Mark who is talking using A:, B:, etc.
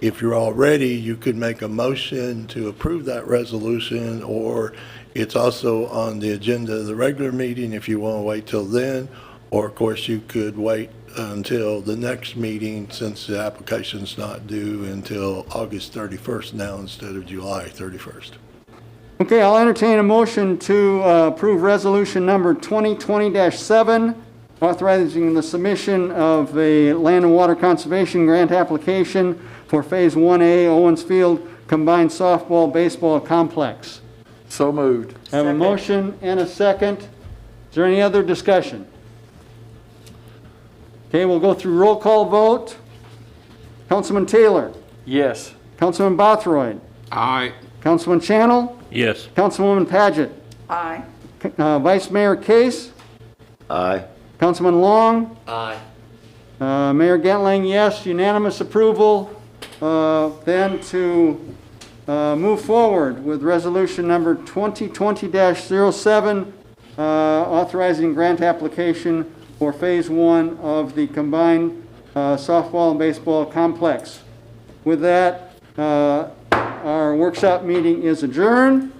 A: If you're all ready, you could make a motion to approve that resolution, or it's also on the agenda of the regular meeting if you want to wait till then, or of course, you could wait until the next meeting since the application's not due until August 31st now instead of July 31st.
B: Okay, I'll entertain a motion to uh, approve resolution number 2020-7, authorizing the submission of a land and water conservation grant application for Phase 1A Owens Field Combined Softball Baseball Complex.
C: So moved.
B: I have a motion and a second. Is there any other discussion? Okay, we'll go through roll call vote. Councilman Taylor,
C: Yes.
B: Councilman Bothroyd,
D: Aye.
B: Councilman Channel,
D: Yes.
B: Councilwoman Paget,
E: Aye.
B: uh, Vice Mayor Case,
F: Aye.
B: Councilman Long? Aye. Mayor Gentling, yes, unanimous approval. Uh, Then to uh, move forward with resolution number 2020-07, uh, authorizing grant application for Phase 1 of the combined uh, softball and baseball complex. With that, uh, our workshop meeting is adjourned.